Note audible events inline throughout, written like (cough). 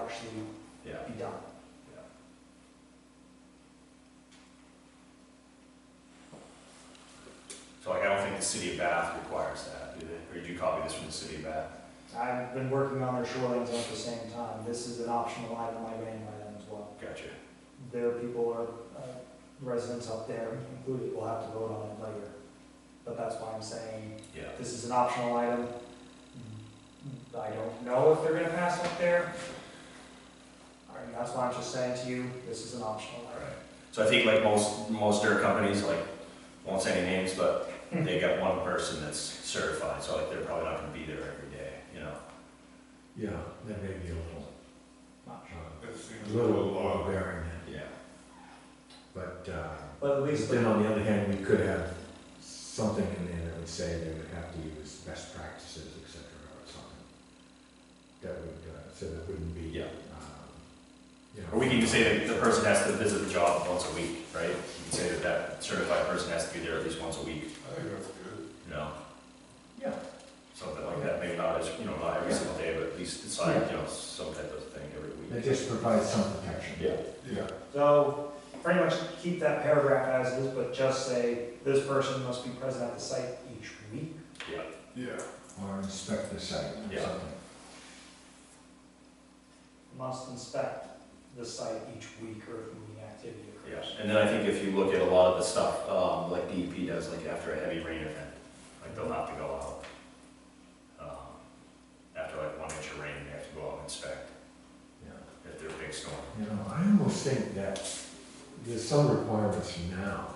actually Yeah. be done. So like, I don't think the city of Bath requires that, do they? Or did you copy this from the city of Bath? I've been working on their shorelines at the same time. This is an optional item I ran by them as well. Gotcha. Their people are, uh, residents up there included, will have to vote on it later. But that's why I'm saying Yeah. this is an optional item. I don't know if they're gonna pass up there. All right, that's why I'm just saying to you, this is an optional All item. right. So I think like most, most dirt companies, like, won't say any names, but they got one person that's certified, so like, they're probably not gonna be there every day, you know? Yeah, that may be a little, Not sure. uh, That seems a little overbearing, Yeah. but, uh, But at least, then on the other hand, we could have something in there that would say they would have to use best practices, et cetera, or something. That would, uh, so that wouldn't be. Yeah. um, you know- Or we can just say that the person has to visit the job once a week, right? You can say that that certified person has to be there at least once a week, I think that's good. you know? Yeah. Something like that, maybe not as, you know, not every single day, but at least it's like, you know, some type of thing every It week. just provides some protection. Yeah. Yeah, so pretty much keep that paragraph as is, but just say this person must be present at the site each week. Yeah. yeah. Or inspect the site or Yeah. something. must inspect the site each week or if any activity Yeah, occurs. and then I think if you look at a lot of the stuff, um, like DEP does, like after a heavy rain event, like they'll have to go out. um, After like one inch of rain, they have to go out and inspect Yeah. if they're a big storm. You know, I almost think that there's some requirements now,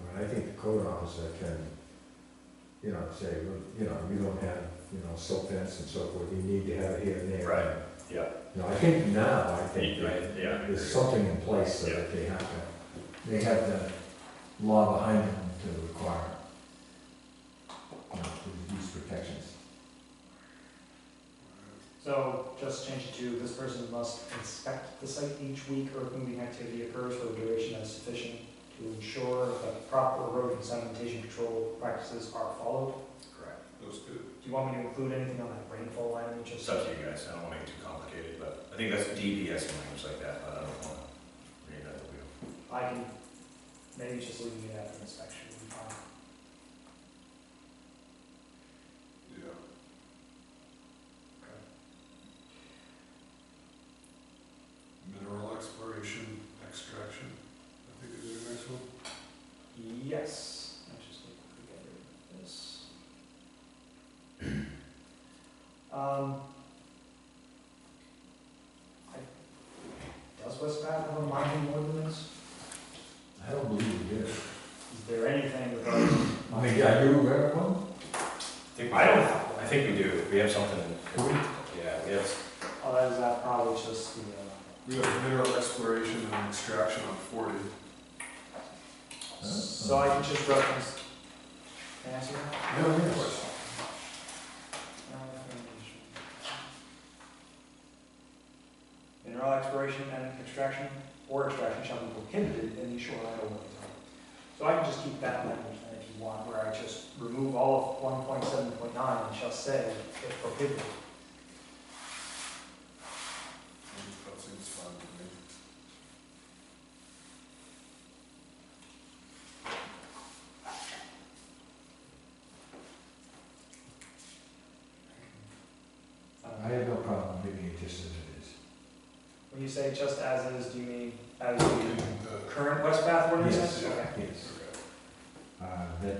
but I think the code officer can, you know, say, well, you know, you don't have, you know, silt fence and so forth, you need to have it here and there. Right, yeah. You know, I think now, I think Yeah, that yeah, I agree. there's something in place so that they have to, they have the law behind them to require, you know, these protections. So just change it to this person must inspect the site each week or if moving activity occurs for a duration that is sufficient to ensure that proper road and sedimentation control practices are followed. Correct. That's good. Do you want me to include anything on that rainfall line you just? It's up to you guys, I don't wanna make it too complicated, but I think that's DEP has some language like that, but I don't wanna read that. wheel. I can, maybe just leave it at inspection. would be fine. Yeah. Mineral exploration, extraction. I think is the next one. Yes, I just need to get rid of this. Um, I- Does West Bath have a mining ordinance? I don't believe we did. Is there anything regarding? I mean, yeah, you aware of one? I don't, I think we do, we have something, yeah, we have, Oh, that is, that probably just the, uh, We have mineral exploration and extraction on forty. so I can just reference, can I answer that? No, yes. Mineral exploration and extraction or extraction shall be prohibited in the shoreline overlay zone. So I can just keep that language then if you want, where I just remove all of one point seven point nine and shall say it's prohibited. That seems fine to me. I have no problem leaving it just as it is. When you say just as is, do you mean as the The- current West Bath ordinance? Yes. Okay. Yes. okay. Uh, that,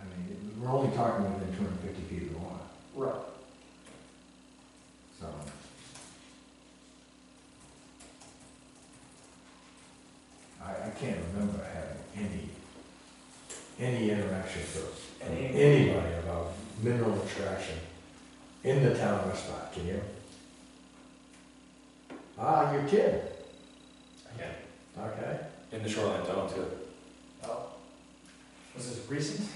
I mean, we're only talking within two hundred and fifty feet of the water, Right, so. I, I can't remember having any, any interaction with Any- anybody about mineral extraction in the town of West Bath, can you? Ah, you're kidding, yeah, okay. in the shoreline zone too, oh. Was this recent?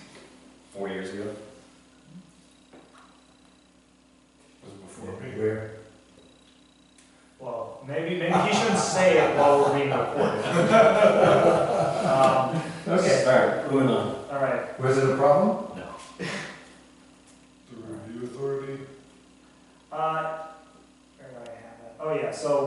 four years ago. Was before me. Where? Well, maybe, maybe he shouldn't say it while we're being recorded. (laughs) Um, Okay, all right, moving on. All right, Was it a problem? No. The review authority. uh, where do I have it? Oh, yeah, so